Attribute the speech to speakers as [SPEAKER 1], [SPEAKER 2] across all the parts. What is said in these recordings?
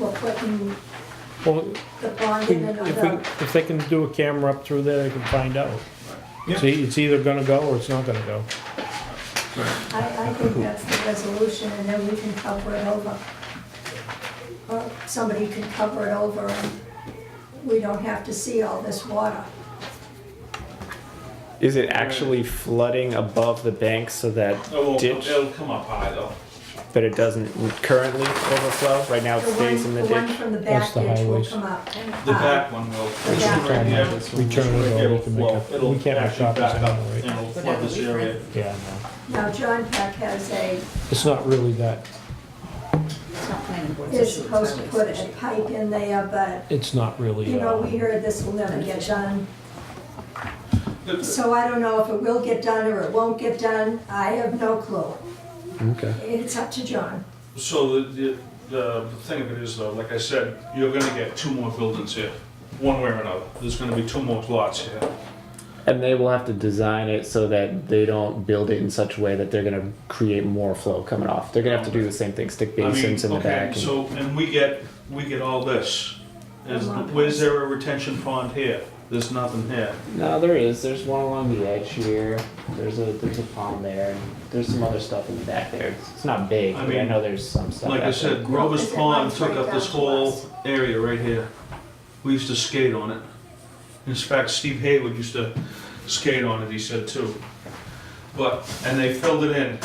[SPEAKER 1] we're putting
[SPEAKER 2] Well,
[SPEAKER 1] the pond
[SPEAKER 2] we-
[SPEAKER 1] in
[SPEAKER 2] if
[SPEAKER 1] another,
[SPEAKER 2] we, if they can do a camera up through there, they can find out.
[SPEAKER 3] Yeah.
[SPEAKER 2] See, it's either gonna go or it's not gonna go.
[SPEAKER 1] I, I think that's the resolution, and then we can cover it over. Or somebody can cover it over, and we don't have to see all this water.
[SPEAKER 4] Is it actually flooding above the bank so that
[SPEAKER 3] It will,
[SPEAKER 4] ditch
[SPEAKER 3] it'll come up high though.
[SPEAKER 4] that it doesn't currently overflow? Right now it
[SPEAKER 1] The
[SPEAKER 4] stays in
[SPEAKER 1] one,
[SPEAKER 4] the
[SPEAKER 1] the one
[SPEAKER 4] ditch.
[SPEAKER 1] from the
[SPEAKER 2] That's
[SPEAKER 1] back
[SPEAKER 2] the
[SPEAKER 1] ditch will
[SPEAKER 2] highways.
[SPEAKER 1] come up.
[SPEAKER 3] The
[SPEAKER 2] Uh-huh.
[SPEAKER 3] back one will.
[SPEAKER 1] The back
[SPEAKER 3] Right
[SPEAKER 1] one.
[SPEAKER 3] here.
[SPEAKER 2] We turn it
[SPEAKER 3] Right
[SPEAKER 2] over,
[SPEAKER 3] here
[SPEAKER 2] we
[SPEAKER 3] will
[SPEAKER 2] can make
[SPEAKER 3] flow.
[SPEAKER 2] a,
[SPEAKER 3] It'll
[SPEAKER 2] we can't have
[SPEAKER 3] actually
[SPEAKER 2] shopping
[SPEAKER 3] back up
[SPEAKER 2] center,
[SPEAKER 3] and
[SPEAKER 2] right?
[SPEAKER 3] it'll flood this area.
[SPEAKER 2] Yeah, no.
[SPEAKER 1] Uh, Now, John Peck has a,
[SPEAKER 2] It's not really that,
[SPEAKER 5] It's not planning board's
[SPEAKER 1] is
[SPEAKER 5] issue. it's
[SPEAKER 1] supposed to
[SPEAKER 5] highway's
[SPEAKER 1] put
[SPEAKER 5] issue.
[SPEAKER 1] a pipe in there, but,
[SPEAKER 2] it's not really,
[SPEAKER 1] you know,
[SPEAKER 2] uh,
[SPEAKER 1] we heard this will never get done.
[SPEAKER 3] The- the-
[SPEAKER 1] So I don't know if it will get done or it won't get done, I have no clue.
[SPEAKER 4] Okay.
[SPEAKER 1] It's up to John.
[SPEAKER 3] So the, the, the thing of it is though, like I said, you're gonna get two more buildings here, one way or another. There's gonna be two more plots here.
[SPEAKER 4] And they will have to design it so that they don't build it in such a way that they're gonna create more flow coming off. They're gonna have to do the same thing, stick
[SPEAKER 3] I mean,
[SPEAKER 4] basins in the
[SPEAKER 3] okay,
[SPEAKER 4] back. and-
[SPEAKER 3] So, and we get, we get all this. Is,
[SPEAKER 1] Along.
[SPEAKER 3] where's there a retention pond here? There's nothing here.
[SPEAKER 4] No, there is. There's one along the edge here. There's a there's a pond there. and There's some other stuff in the back there. It's, it's not big.
[SPEAKER 3] I
[SPEAKER 4] but I
[SPEAKER 3] mean,
[SPEAKER 4] know there's some stuff.
[SPEAKER 3] Like
[SPEAKER 4] out
[SPEAKER 3] I
[SPEAKER 4] there.
[SPEAKER 3] said, Grover's
[SPEAKER 1] Is it
[SPEAKER 3] Pond
[SPEAKER 1] like
[SPEAKER 3] took
[SPEAKER 1] right
[SPEAKER 3] up this
[SPEAKER 1] down to
[SPEAKER 3] whole
[SPEAKER 1] us?
[SPEAKER 3] area right here. We used to skate on it. In fact, Steve Haywood used to skate on it, he said too. But, and they filled it in.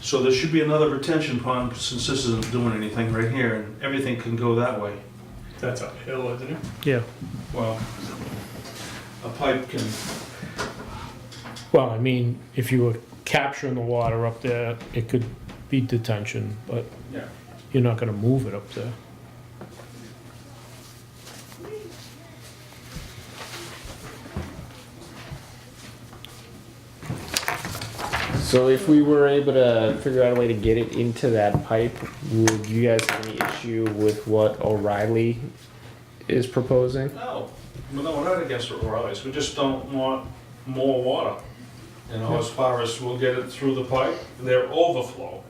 [SPEAKER 3] So there should be another retention pond since this isn't doing anything right here and everything can go that way.
[SPEAKER 6] That's uphill, isn't it?
[SPEAKER 2] yeah.
[SPEAKER 3] Well, a pipe can,
[SPEAKER 2] Well, I mean, if you were capturing the water up there, it could be detention, but
[SPEAKER 3] yeah.
[SPEAKER 2] you're not gonna move it up there.
[SPEAKER 4] So if we were able to figure out a way to get it into that pipe, would you guys have any issue with what O'Reilly is proposing?
[SPEAKER 3] No, we're not, we're not against it, O'Reilly's, we just don't want more water. You know, as far as we'll get it through the pipe, their overflow,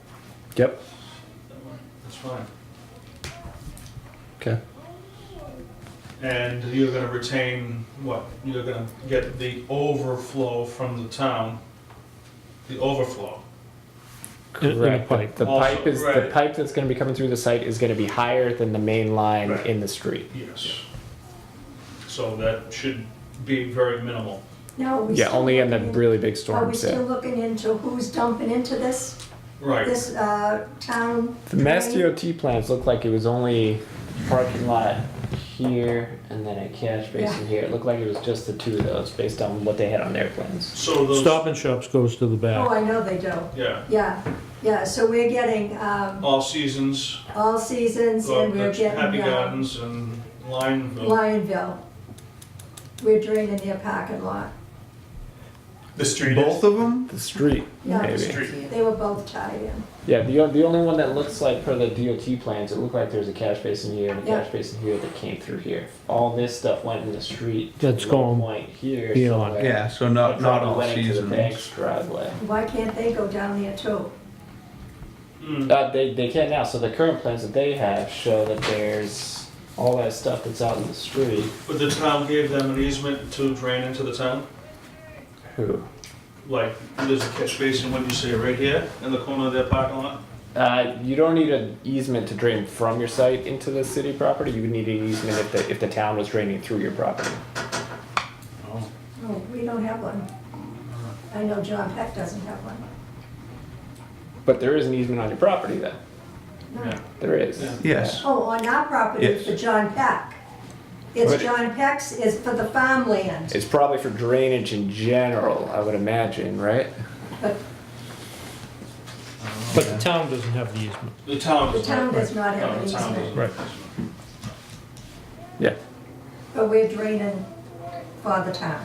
[SPEAKER 4] Yep.
[SPEAKER 3] that's fine.
[SPEAKER 4] Okay.
[SPEAKER 3] And you're gonna retain, what, you're gonna get the overflow from the town, the overflow.
[SPEAKER 2] In- in the
[SPEAKER 4] Correct.
[SPEAKER 2] pipe.
[SPEAKER 4] The
[SPEAKER 3] Also,
[SPEAKER 4] pipe is the
[SPEAKER 3] right.
[SPEAKER 4] pipe that's going to be coming through the site is going to be higher than the main line
[SPEAKER 3] Right.
[SPEAKER 4] in the street.
[SPEAKER 3] Yes. So that should be very minimal.
[SPEAKER 1] Now, are we
[SPEAKER 4] Yeah,
[SPEAKER 1] still
[SPEAKER 4] only in the
[SPEAKER 1] looking-
[SPEAKER 4] really big
[SPEAKER 1] Are
[SPEAKER 4] storm.
[SPEAKER 1] we still looking into who's dumping into this,
[SPEAKER 3] Right,
[SPEAKER 1] this, uh, town?
[SPEAKER 4] The Mass
[SPEAKER 1] drain?
[SPEAKER 4] DOT plans looked like it was only parking lot here and then a cash basin here. It looked like it was just the two of those based on what they had on their plans.
[SPEAKER 3] so those.
[SPEAKER 2] Stop and Shops goes to the
[SPEAKER 1] Oh,
[SPEAKER 2] back.
[SPEAKER 1] I know they do,
[SPEAKER 3] Yeah,
[SPEAKER 1] yeah, yeah, so we're getting, um,
[SPEAKER 3] all seasons,
[SPEAKER 1] all seasons
[SPEAKER 3] uh,
[SPEAKER 1] and we're
[SPEAKER 3] Happy
[SPEAKER 1] getting, um,
[SPEAKER 3] Gardens and Lineville.
[SPEAKER 1] Lionville. We're draining their parking lot,
[SPEAKER 6] The street
[SPEAKER 4] Both
[SPEAKER 6] is.
[SPEAKER 4] of them? The street,
[SPEAKER 1] Yeah.
[SPEAKER 4] maybe.
[SPEAKER 6] Street.
[SPEAKER 1] they were both tied in.
[SPEAKER 4] Yeah, the, o- the only one that looks like per the DOT plans, it looked like there's a cash basin here and a
[SPEAKER 1] Yeah.
[SPEAKER 4] cash basin here that came through here. All this stuff went in the street. to
[SPEAKER 2] That's
[SPEAKER 4] the low
[SPEAKER 2] going
[SPEAKER 4] point here.
[SPEAKER 2] beyond.
[SPEAKER 4] somewhere.
[SPEAKER 7] Yeah, so
[SPEAKER 4] It
[SPEAKER 7] not, not
[SPEAKER 4] probably
[SPEAKER 7] all
[SPEAKER 4] went into the
[SPEAKER 7] seasons.
[SPEAKER 4] bank's driveway.
[SPEAKER 1] Why can't they go down there too?
[SPEAKER 3] Mm.
[SPEAKER 4] Uh, they, they can now. So the current plans that they have show that there's all that stuff that's out in the street.
[SPEAKER 3] But the town gave them an easement to drain into the town?
[SPEAKER 4] Who?
[SPEAKER 3] Like, there's a catch basin, what do you say, right here, in the corner of their parking lot?
[SPEAKER 4] Uh, you don't need an easement to drain from your site into the city property. You would need an easement if the, if the town was draining through your property.
[SPEAKER 3] Oh.
[SPEAKER 1] Oh, we don't have one. I know John Peck doesn't have one.
[SPEAKER 4] But there is an easement on your property then.
[SPEAKER 3] Yeah.
[SPEAKER 4] There is.
[SPEAKER 3] Yeah.
[SPEAKER 7] Yes,
[SPEAKER 1] Oh, on our property
[SPEAKER 7] Yes.
[SPEAKER 1] for John Peck. It's
[SPEAKER 4] Right.
[SPEAKER 1] John Peck's, it's for the farmland.
[SPEAKER 4] It's probably for drainage in general, I would imagine, right?
[SPEAKER 2] But the town doesn't have the easement.
[SPEAKER 3] The town
[SPEAKER 1] The
[SPEAKER 3] does
[SPEAKER 1] town
[SPEAKER 3] not.
[SPEAKER 1] does not have
[SPEAKER 3] No,
[SPEAKER 1] an
[SPEAKER 3] the town
[SPEAKER 1] easement,
[SPEAKER 3] doesn't.
[SPEAKER 2] Right.
[SPEAKER 4] Yeah.
[SPEAKER 1] but we're draining for the town.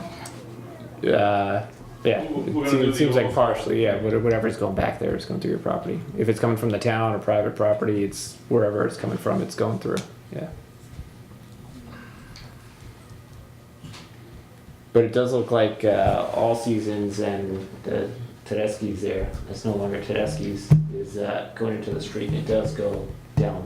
[SPEAKER 4] Uh, yeah,
[SPEAKER 3] We're gonna
[SPEAKER 4] it,
[SPEAKER 3] do
[SPEAKER 4] seems, it
[SPEAKER 3] the
[SPEAKER 4] seems like
[SPEAKER 3] overflow.
[SPEAKER 4] partially, yeah, whate- whatever's going back there is going through your property. If it's coming from the town or private property, it's wherever it's coming from, it's going through, yeah. But it does look like, uh, All Seasons and the Tedeschi's there, it's no longer Tedeschi's, is, uh, going into the street, and it does go down